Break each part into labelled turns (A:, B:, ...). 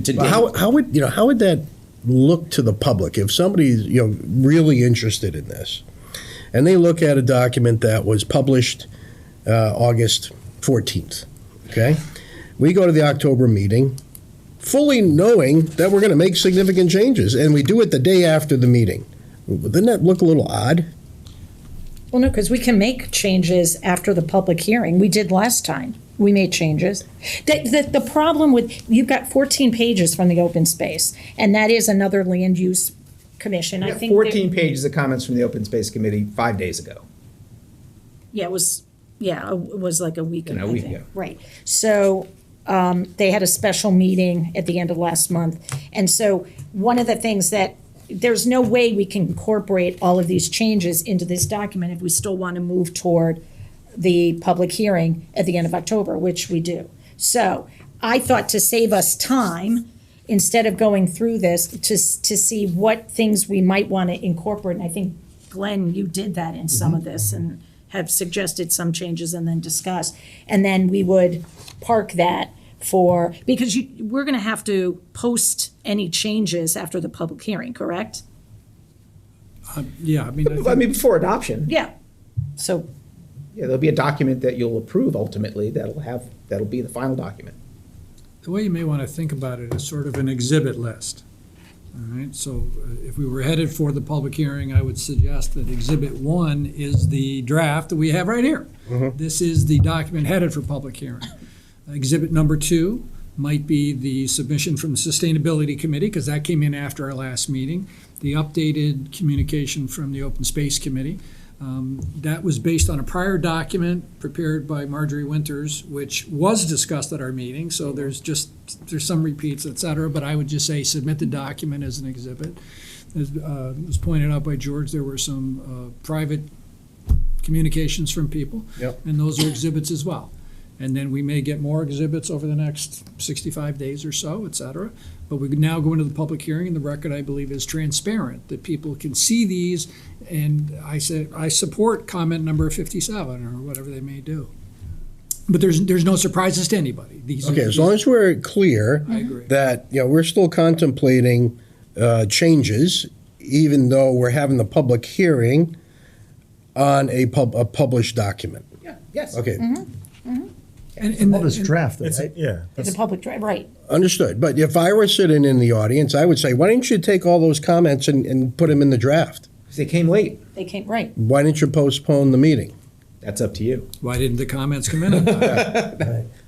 A: to
B: But
A: date.
B: How, how would, you know, how would that look to the public? If somebody's, you know, really interested in this, and they look at a document that was published uh, August 14th, okay? We go to the October meeting, fully knowing that we're going to make significant changes, and we do it the day after the meeting. Wouldn't that look a little odd?
C: Well, no, because we can make changes after the public hearing. We did last time. We made changes. The, the, the problem with, you've got 14 pages from the open space, and that is another land use commission. I think. that-
A: 14 pages of comments from the Open Space Committee five days ago.
C: Yeah, it was, yeah, it was like a week.
A: In a
C: I
A: week,
C: think.
A: yeah.
C: Right. So um, they had a special meeting at the end of last month. And so one of the things that, there's no way we can incorporate all of these changes into this document if we still want to move toward the public hearing at the end of October, which we do. So I thought to save us time, instead of going through this, to, s- to see what things we might want to incorporate. And I think, Glenn, you did that in some
A: Mm-hmm.
C: of this and have suggested some changes and then discussed. And then we would park that for, because you, we're going to have to post any changes after the public hearing, correct?
D: Uh, Yeah, I mean, I
A: I
D: think,
A: mean, before adoption,
C: Yeah. So
A: yeah, there'll be a document that you'll approve ultimately that'll have, that'll be the final document.
D: the way you may want to think about it is sort of an exhibit list. All right, so uh, if we were headed for the public hearing, I would suggest that exhibit one is the draft that we have right here. This is the document headed for public hearing. Exhibit number two might be the submission from the Sustainability Committee, because that came in after our last meeting. The updated communication from the Open Space Committee. Um, That was based on a prior document prepared by Marjorie Winters, which was discussed at our meeting, so there's just, there's some repeats, et cetera, but I would just say submit the document as an exhibit. As uh, was pointed out by George, there were some uh, private communications from people.
B: Yep.
D: And those are exhibits as well. And then we may get more exhibits over the next 65 days or so, et cetera. But we now go into the public hearing, and the record, I believe, is transparent, that people can see these. And I said, I support comment number 57, or whatever they may do. But there's, there's no surprises to anybody. These are-
B: Okay, as long as we're clear
D: I agree.
B: that, you know, we're still contemplating uh, changes, even though we're having the public hearing on a pub, a published document.
A: Yeah, yes.
B: Okay,
E: Mm-hmm.
D: And- and-
F: Well, it's
D: and-
F: drafted, right? Yeah.
C: it's a public, dri- right.
B: understood. But if I were sitting in the audience, I would say, why didn't you take all those comments and, and put them in the draft?
A: They came late.
C: They came, right.
B: Why didn't you postpone the meeting?
A: That's up to you.
D: Why didn't the comments come in? on time?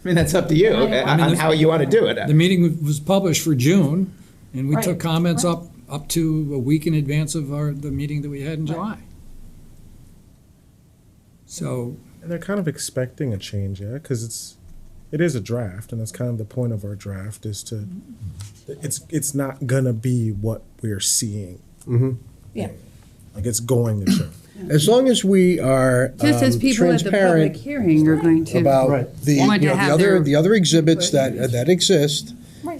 A: I mean, that's up to you uh,
D: mean,
A: on
D: this-
A: how you want to do it.
D: The meeting was published for June, and we
C: Right.
D: took comments up, up to a week in advance of our, the meeting that we had in July. So,
F: And they're kind of expecting a change, yeah, because it's, it is a draft, and that's kind of the point of our draft is to, it's it's not gonna be what we're seeing,
C: Yeah.
F: like it's going to change.
B: As long as we are
E: Just as
B: um,
E: people at the public
B: transparent
E: hearing are going to.
B: about the, you know,
E: Want to
B: the
E: have
B: other,
E: their-
B: the other exhibits that, that exist.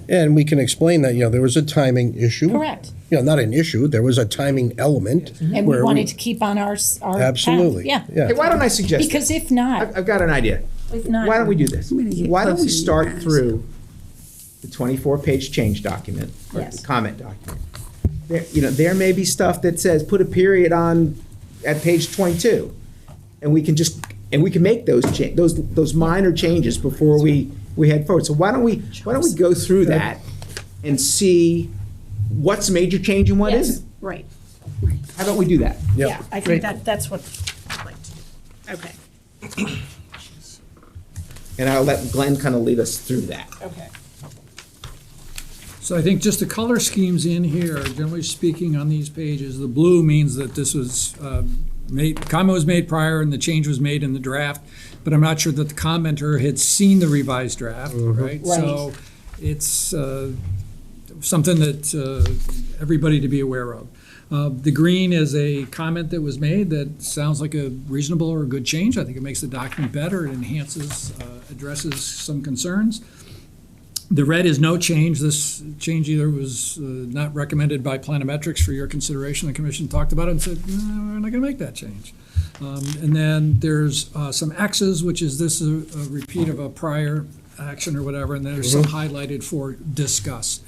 B: And we can explain that, you know, there was a timing issue.
C: Correct.
B: You know, not an issue, there was a timing element.
C: And we
B: where
C: wanted to keep on our, s- our. path.
B: Absolutely.
C: Yeah.
B: Yeah.
A: Hey, why don't I suggest?
C: Because if not.
A: I've, I've got an idea.
C: If not-
A: Why don't we do this?
E: I'm gonna get
A: Why don't we
E: closer to you
A: start
E: guys.
A: through the twenty-four page change document, or the
C: Yes.
A: comment document? There, you know, there may be stuff that says, put a period on, at page twenty-two. And we can just, and we can make those cha, those, those minor changes before we, we head forward. So why don't we, why don't we go through that and see what's a major change and what
C: Yes,
A: isn't?
C: Right.
A: How about we do that?
C: Yeah, I think that, that's what I'd like to do. Okay,
A: And I'll let Glenn kind of lead us through that.
C: okay.
D: so I think just the color schemes in here, generally speaking, on these pages, the blue means that this was uh, made, comment was made prior and the change was made in the draft, but I'm not sure that the commenter had seen the revised draft, right? So it's, uh, something that uh, everybody to be aware of. Uh, The green is a comment that was made that sounds like a reasonable or a good change. I think it makes the document better, it enhances, uh, addresses some concerns. The red is no change. This change either was uh, not recommended by Planometrics for your consideration. The commission talked about it and said, no, we're not going to make that change. Um, And then there's uh, some X's, which is this is a a repeat uh, of a prior action or whatever, and there's some highlighted for discuss.